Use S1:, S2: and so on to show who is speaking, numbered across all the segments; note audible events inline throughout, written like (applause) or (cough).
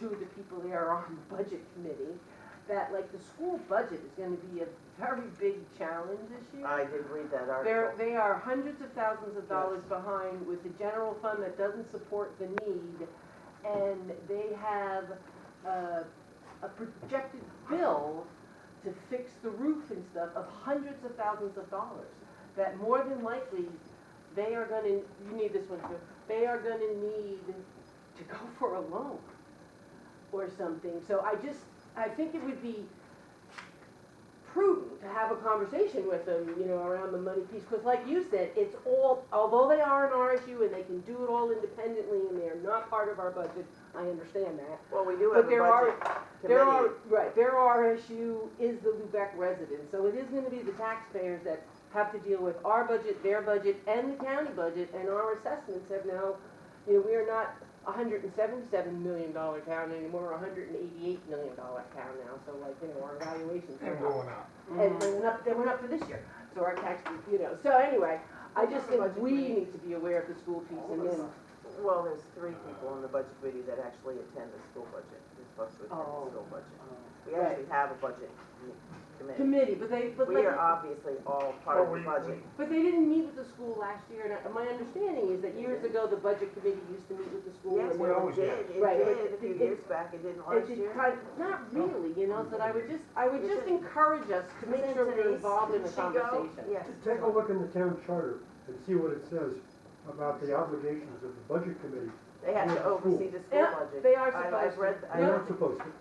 S1: to the people that are on the budget committee, that like the school budget is gonna be a very big challenge this year.
S2: I did read that
S1: They're,
S2: article.
S1: they are hundreds of thousands of dollars behind with the general fund that doesn't support the need. And they have a, a projected bill to fix the roof and stuff of hundreds of thousands of dollars. That more than likely, they are gonna, you need this one too, they are gonna need to go (laughs) for a loan or something. So I just, I think it would be prudent to have a conversation with them, you know, around the money piece. Because like you said, it's all, although they are an RSU and they can do it all independently and they are not part of our budget, I understand that.
S2: Well, we do
S1: But
S2: have a
S1: there are,
S2: budget
S1: there are,
S2: committee.
S1: right, their RSU is the Lubec resident, so it is gonna be the taxpayers that have to deal with our budget, their budget, and the county budget, and our assessments have now, you know, we are not a hundred and seventy-seven million dollar town anymore, we're a hundred and eighty-eight million dollar town now, so like, you know, our evaluations
S3: and
S1: are up.
S3: going up.
S2: Mm-hmm.
S1: And they went up, they went up for this year, so our tax, you know, so anyway, I just think
S4: Budget
S1: we
S4: committee.
S1: need to be aware of the school piece and then,
S2: Well, there's three people on the budget committee that actually attend the school budget, they're supposed to attend
S1: Oh.
S2: the school budget. We actually have a budget commi- committee.
S1: committee, but they, but like.
S2: We are obviously all part
S3: But
S2: of
S3: we-
S2: the budget.
S1: But they didn't meet with the school last year, and I- my understanding is that years ago, the budget committee used to meet with the school.
S2: Yes,
S1: and
S3: we
S1: they-
S3: always
S2: it did,
S3: have.
S2: it
S1: Right,
S2: did
S1: but
S2: a few
S1: it-
S2: years back, it didn't
S1: It
S2: last
S1: did
S2: year.
S1: kind of, not really, you know, so that I would just, I would
S2: You
S1: just
S2: should-
S1: encourage us to make
S2: Isn't
S1: sure we're
S2: Denise-
S1: involved in the
S2: did she go?
S1: conversation.
S2: Yes.
S5: Take a look in the town charter and see what it says about the obligations of the budget committee.
S2: They have to
S5: Yeah,
S2: oversee the school
S1: Yeah,
S2: budget.
S1: they are
S2: I- I've
S1: supposed
S2: read,
S1: to.
S2: I
S5: They're
S2: read,
S5: not supposed to,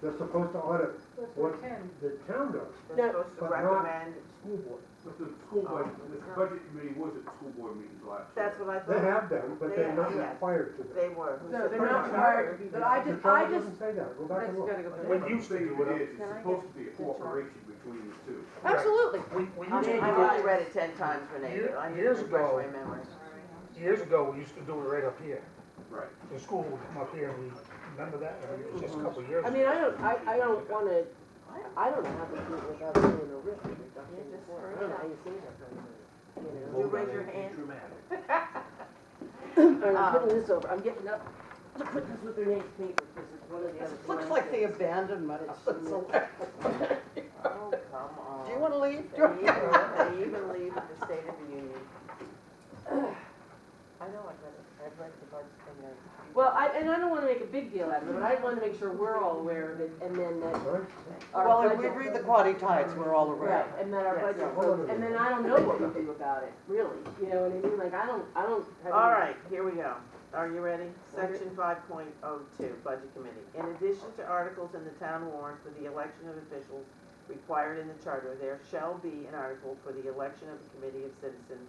S5: they're supposed to audit what the town does,
S1: No.
S2: they're supposed to
S5: But not-
S2: recommend,
S5: school board.
S6: But the school budget, the
S2: Oh.
S6: budget committee was at school board meetings last year.
S2: that's what I
S5: They
S2: thought,
S5: have done, but they're not
S2: Yeah.
S5: required to.
S2: they were.
S1: No, they're not
S5: Right.
S1: required, to be- but I
S5: The
S1: just, I
S5: charter
S1: just,
S5: doesn't say that, go back
S1: that's
S5: and
S1: gotta
S5: look.
S1: go back.
S6: When you say
S3: Can I
S6: it is,
S4: get
S6: it's supposed to be a cooperation between the two.
S1: Absolutely.
S3: We, we
S2: I
S3: used
S2: mean,
S3: to
S2: I've
S3: do
S2: only
S3: it,
S2: read it ten times, Renee, but I need to
S3: Years
S2: refresh
S3: ago.
S2: my memory.
S3: years ago, we used to do it right up here.
S6: Right.
S3: The school would come up here, and we, remember that? I mean, It was just a couple of years
S1: I
S3: ago.
S1: mean, I don't, I, I don't wanna,
S2: Oh,
S1: I don't know how to do it without doing a risk reduction.
S2: Yeah, just
S1: I
S2: for-
S1: don't know how you say that, but, you know.
S2: You raise your hand.
S1: (clears throat) All right, I'm
S2: Um,
S1: putting this over, I'm getting up to put this with the next paper, because it's one of the other.
S4: Looks like the abandonment of the select.
S2: Oh, come on.
S4: Do you wanna leave?
S2: They even, they even leave in the State of the Union. I know, I've read it, I've read the budget and the.
S1: Well, I, and I don't wanna make a big deal out of it, but I wanna make sure we're all aware of it, and then that
S5: All right?
S1: our
S4: Well, if we
S1: budget-
S4: read the Quaddy Tides, we're all
S1: Right,
S4: around.
S1: and then our
S2: Yes.
S1: budget,
S5: Hold on a
S1: and then
S5: minute.
S1: I don't know what we do about it, really, you know what I mean, like, I don't, I don't. have
S2: All
S1: any-
S2: right, here we go. Are you ready? Section five point oh two, Budget Committee. In addition to articles in the town warrant for the election of officials required in the charter, there shall be an article for the election of a committee of citizens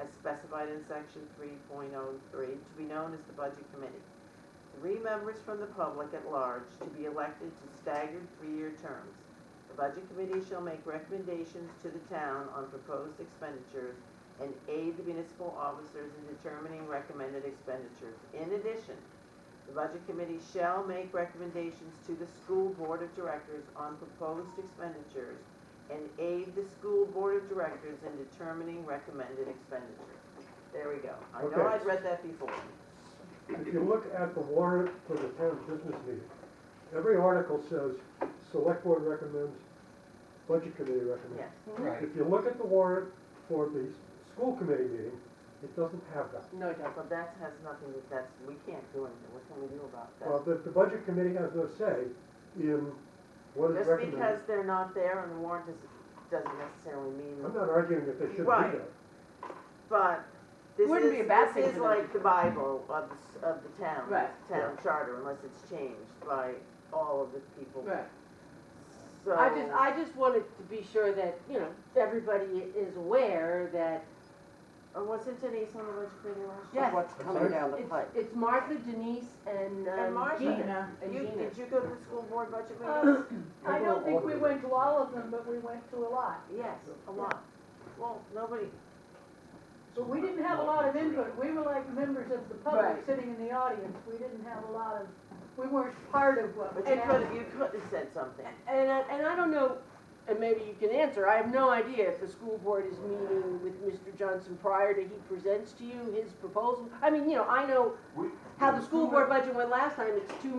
S2: as specified in section three point oh three, to be known as the Budget Committee. Three members from the public at large to be elected to staggered three-year terms. The Budget Committee shall make recommendations to the town on proposed expenditures and aid the municipal officers in determining recommended expenditures. In addition, the Budget Committee shall make recommendations to the School Board of Directors on proposed expenditures and aid the School Board of Directors in determining recommended expenditures. There we go. I know
S5: Okay. Mm-hmm.
S2: I'd read that before.
S5: If you look at the warrant for the town business meeting, every article says, select board recommends, budget committee recommends.
S2: Yes.
S3: Right.
S5: If you look at the warrant for the s- school committee meeting, it doesn't have that.
S1: No, it doesn't.
S2: But that has nothing, to- that's, we can't do anything. What can we do about
S5: Well,
S2: that?
S5: the, the budget committee has no say in what is
S2: Just because
S5: recommended.
S2: they're not there on the warrant does- doesn't necessarily mean.
S5: I'm not arguing that they shouldn't do
S2: Right.
S5: that.
S2: But this
S1: Wouldn't be a
S2: is,
S1: bad thing
S2: this is
S1: for them to
S2: like the Bible of, the s- of the town,
S1: Right.
S2: the town charter, unless it's changed by all of the people.
S1: Right.
S2: So.
S1: I just, I just wanted to be sure that, you know, everybody is aware that
S2: Or uh, wasn't Denise on the budget committee last year?
S1: Yes.
S4: What's coming down the
S1: it's,
S4: pipe?
S1: it's Martha, Denise, and
S2: And
S1: um,
S2: Martha.
S1: Gina. And
S2: You,
S1: Gina. Uh.
S2: did you go to the school board budget meetings?
S7: Um, I don't think we went to all of them, but we went to a lot.
S2: Yes, a lot. Well, nobody,
S7: But we didn't have a lot of input, we were like members of the
S1: Right.
S7: public sitting in the audience, we didn't have a lot of, we weren't part of what
S2: but
S7: was
S2: you could,
S7: happening.
S2: you could have said something.
S1: And, I- and I don't know, and maybe you can answer, I have no idea if the school board is meeting with Mr. Johnson prior to he presents to you his proposal. I mean, you know, I know
S6: We-
S1: how the school board budget went last time, it's two